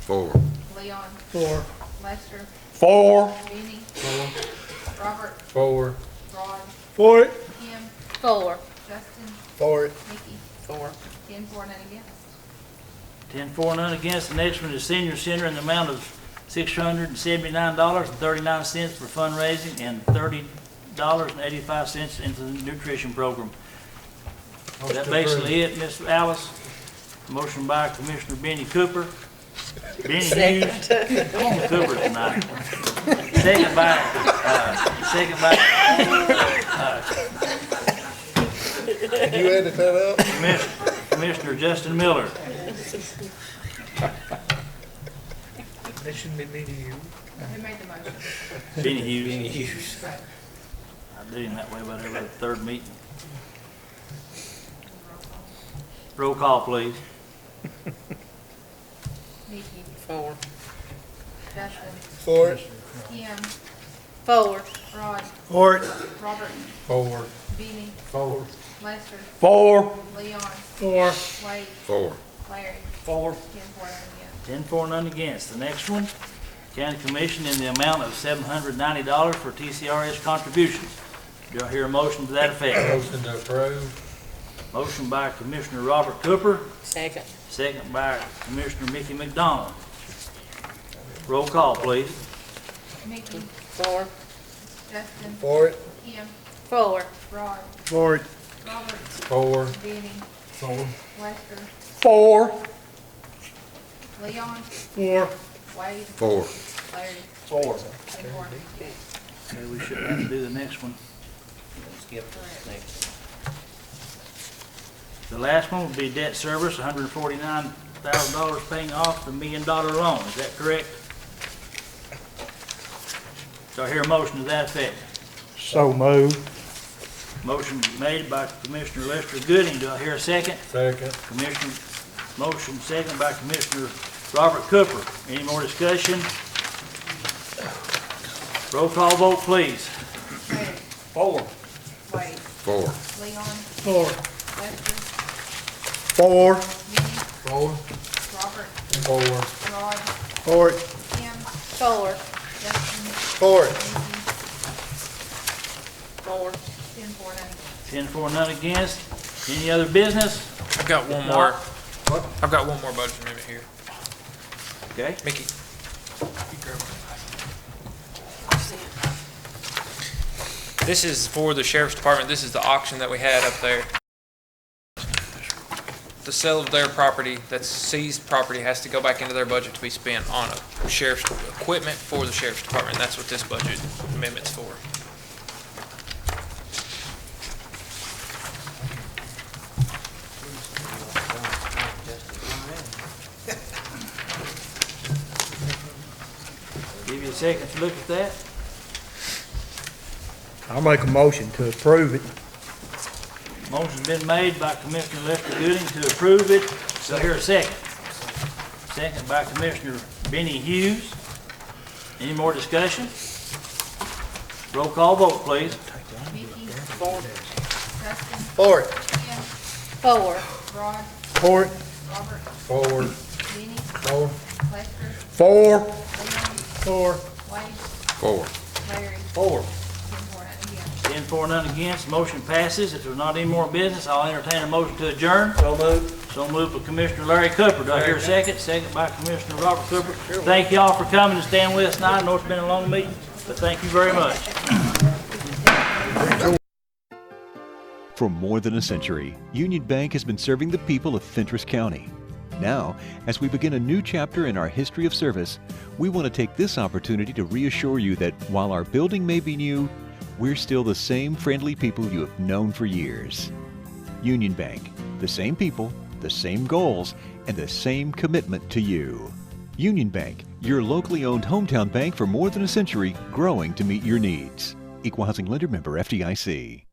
Four. Leon, Four. Lester, Four. Benny, Robert, Four. Rod, Four. Kim, Four. Justin, Four. Nikki, Four. ten for, none against. Ten for, none against. The next one is senior center in the amount of six hundred and seventy-nine dollars and thirty-nine cents for fundraising and thirty dollars and eighty-five cents into the nutrition program. Is that basically it, Ms. Alice? Motion by Commissioner Benny Cooper. Benny Hughes. I'm on Cooper tonight. Second by, uh, second by You edit that up? Commissioner- Commissioner Justin Miller. That shouldn't be me to you. Who made the motion? Benny Hughes. I do him that way about every third meeting. Roll call, please. Nikki, Four. Justin, Four. Kim, Four. Rod, Four. Robert, Four. Benny, Four. Lester, Four. Leon, Four. Wade, Four. Larry, ten Four. for, none against. Ten for, none against. The next one, county commission in the amount of seven hundred ninety dollars for TCRS contributions. Do I hear a motion to that effect? Motion to approve. Motion by Commissioner Robert Cooper, Second. second by Commissioner Mickey McDonald. Roll call, please. Nikki, Four. Justin, Four. Kim, Four. Rod, Four. Robert, Four. Benny, Four. Lester, Four. Leon, Four. Wade, Four. Larry, Four. ten for, none against. Okay, we should have to do the next one. Skip Correct. next. The last one would be debt service, hundred and forty-nine thousand dollars paying off the million dollar loan, is that correct? So I hear a motion to that effect. So moved. Motion made by Commissioner Lester Gooding, do I hear a second? Second. Commissioner, motion second by Commissioner Robert Cooper. Any more discussion? Roll call vote, please. Larry, Four. Wade, Four. Leon, Four. Lester, Four. Benny, Four. Robert, Four. Rod, Four. Kim, Four. Justin, Four. Nikki, Four. ten for, none against. Ten for, none against. Any other business? I've got one No. more. I've got one more budget amendment here. Okay. Mickey. you grab it. This is for the sheriff's department. This is the auction that we had up there. The sale of their property, that's seized property, has to go back into their budget to be spent on a sheriff's equipment for the sheriff's department. That's what this budget amendment's for. Give you a second to look at that. I'll make a motion to approve it. Motion's been made by Commissioner Lester Gooding to approve it. So here a second. Second by Commissioner Benny Hughes. Any more discussion? Roll call vote, please. Vicky, Four. Justin, Four. Kim, Four. Rod, Four. Robert, Four. Benny, Four. Lester, Four. Leon, Four. Wade, Four. Larry, ten Four. for, none against. Ten for, none against. Motion passes. If there's not any more business, I'll entertain a motion to adjourn. So moved. So moved by Commissioner Larry Cooper. Do I hear a second? Second by Commissioner Robert Cooper. Thank y'all for coming and staying with us tonight. I know it's been a long meeting, but thank you very much. For more than a century, Union Bank has been serving the people of Fentress County. Now, as we begin a new chapter in our history of service, we want to take this opportunity to reassure you that while our building may be new, we're still the same friendly people you have known for years. Union Bank, the same people, the same goals, and the same commitment to you. Union Bank, your locally owned hometown bank for more than a century, growing to meet your needs. Equal Housing Lender Member FDIC.